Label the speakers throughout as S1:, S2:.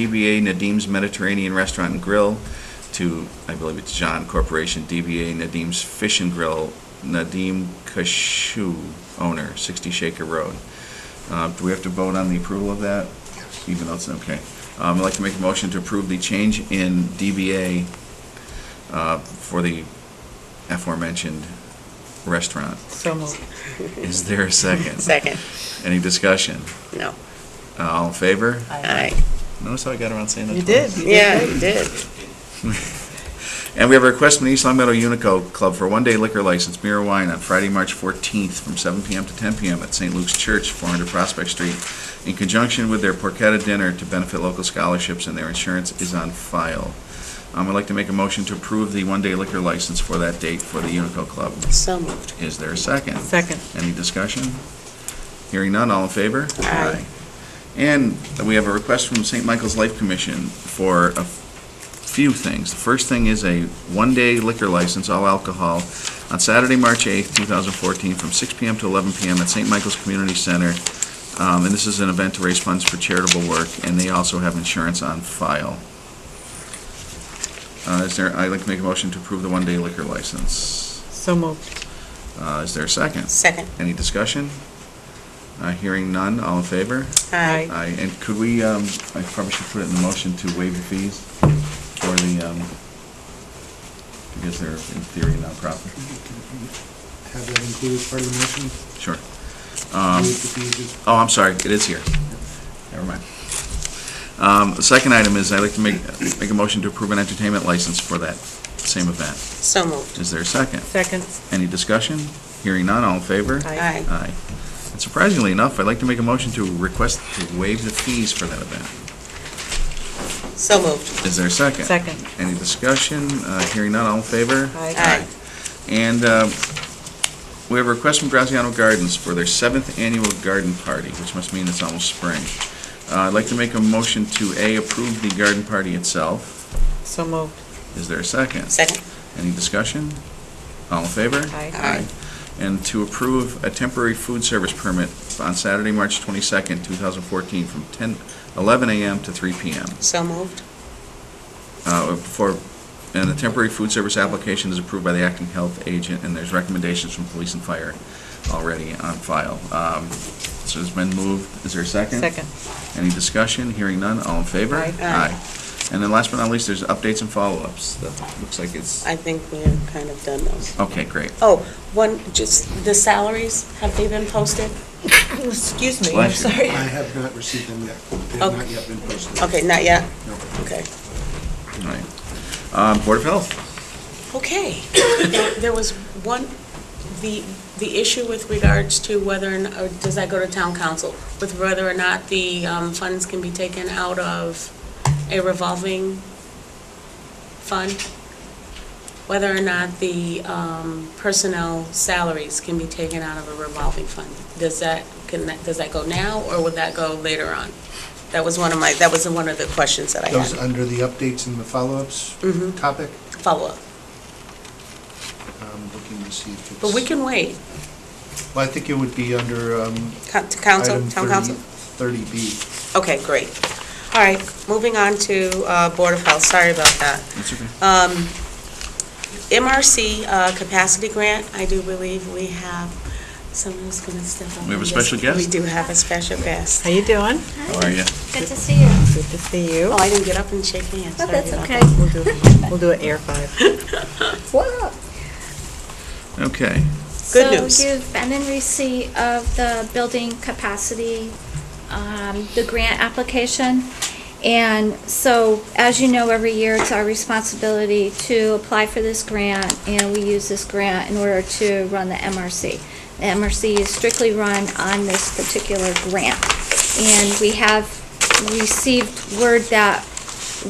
S1: DBA Nadim's Mediterranean Restaurant and Grill to, I believe it's John Corporation, DBA Nadim's Fish and Grill, Nadim Kashu, owner, 60 Shaker Road. Uh, Do we have to vote on the approval of that? Even though it's, okay. Um, I'd like to make a motion to approve the change in DBA uh, for the aforementioned restaurant.
S2: So moved.
S1: Is there a second?
S3: Second,
S1: Any discussion?
S3: no.
S1: Uh, All in favor?
S3: Aye.
S1: Notice how I got around saying that
S2: You
S1: twice.
S2: did. you did
S3: Yeah,
S2: great.
S3: you did.
S1: And we have a request from the East Long Meadow Unico Club for a one-day liquor license, beer and wine, on Friday, March 14th, from 7 PM to 10 PM at St. Luke's Church, 400 Prospect Street, in conjunction with their porchetta dinner to benefit local scholarships, and their insurance is on file. Um, I'd like to make a motion to approve the one-day liquor license for that date for the Unico Club.
S3: So moved.
S1: Is there a second?
S2: Second.
S1: Any discussion? Hearing none, all in favor?
S3: Aye.
S1: And we have a request from St. Michael's Life Commission for a few things. The first thing is a one-day liquor license, all alcohol, on Saturday, March 8th, 2014, from 6 PM to 11 PM at St. Michael's Community Center. Um, And this is an event to raise funds for charitable work, and they also have insurance on file. Uh, Is there, I'd like to make a motion to approve the one-day liquor license.
S2: So moved.
S1: Uh, Is there a second?
S3: Second,
S1: Any discussion? Uh, Hearing none, all in favor?
S3: aye.
S1: Aye, and could we, um, I probably should put it in the motion to waive the fees for the, um, because they're in theory nonprofit.
S4: Have that included as part of the motion?
S1: Sure. Um,
S4: Move the fees as-
S1: Oh, I'm sorry, it is here. Never mind. Um, The second item is I'd like to make, make a motion to approve an entertainment license for that same event.
S3: So moved.
S1: Is there a second?
S2: Second.
S1: Any discussion? Hearing none, all in favor?
S2: Aye.
S1: Aye. And surprisingly enough, I'd like to make a motion to request to waive the fees for that event.
S3: So moved.
S1: Is there a second?
S2: Second.
S1: Any discussion? Uh, Hearing none, all in favor?
S2: Aye.
S3: Aye.
S1: And uh, we have a request from Graziano Gardens for their seventh annual garden party, which must mean it's almost spring. Uh, I'd like to make a motion to, A, approve the garden party itself.
S2: So moved.
S1: Is there a second?
S3: Second,
S1: Any discussion? All in favor?
S2: Aye.
S3: Aye.
S1: And to approve a temporary food service permit on Saturday, March 22nd, 2014, from 10, 11 a.m. to 3 p.m.
S3: so moved.
S1: Uh, For, and the temporary food service application is approved by the acting health agent, and there's recommendations from police and fire already on file. Um, So it's been moved, is there a second?
S2: Second.
S1: Any discussion? Hearing none, all in favor?
S2: Aye.
S3: Aye.
S1: And then last but not least, there's updates and follow-ups. That looks like it's,
S3: I think we're kind of done those.
S1: okay, great.
S3: Oh, one, just the salaries, have they been posted?
S2: Excuse me, I'm
S1: Bless you.
S2: sorry.
S4: I have not received them yet. They have
S3: Okay.
S4: not yet been posted.
S3: Okay, not yet?
S4: No.
S3: Okay.
S1: All right. Um, Board of Health,
S3: Okay. There- There was one, the, the issue with regards to whether, or not- or does that go to town council? With whether or not the um, funds can be taken out of a revolving fund? Whether or not the um, personnel salaries can be taken out of a revolving fund? Does that, can, that does that go now, or would that go later on? That was one of my, that was one of the questions that I
S4: Those
S3: had.
S4: under the updates and the follow-ups
S3: Mhm.
S4: topic,
S3: Follow-up.
S4: I'm looking to see if it's...
S3: But we can wait.
S4: Well, I think it would be under um,
S3: Co- to Council,
S4: item
S3: town council?
S4: 30 30B.
S3: Okay, great. All right, moving on to uh, Board of Health, sorry about that.
S1: that's okay.
S3: Um, MRC uh, capacity grant, I do believe we have, someone's going to step up.
S1: We have a
S3: and
S1: special
S3: just- We
S1: guest?
S3: do have a special guest.
S2: How you doing?
S1: How are you?
S5: Good to see you.
S2: Good to see you.
S3: Oh, I didn't get up and shake hands.
S5: Oh,
S3: Sorry
S5: that's
S3: about
S5: okay.
S3: that.
S2: We'll do, we'll do an air five.
S5: Whoa.
S1: Okay,
S3: Good news.
S5: So you've been in receipt of the building capacity, um, the grant application. And so, as you know, every year it's our responsibility to apply for this grant, and we use this grant in order to run the MRC. The MRC is strictly run on this particular grant. And we have received word that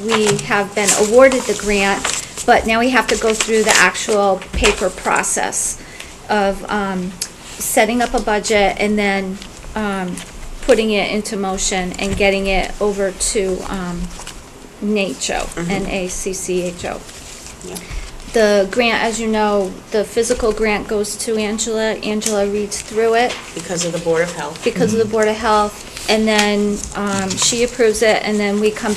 S5: we have been awarded the grant, but now we have to go through the actual paper process of um, setting up a budget and then um, putting it into motion and getting it over to um, NACCHO, N-A-C-C-H-O.
S3: Yeah.
S5: The grant, as you know, the physical grant goes to Angela. Angela reads through it
S3: Because of the Board of Health.
S5: because of the Board of Health, and then um, she approves it, and then we come back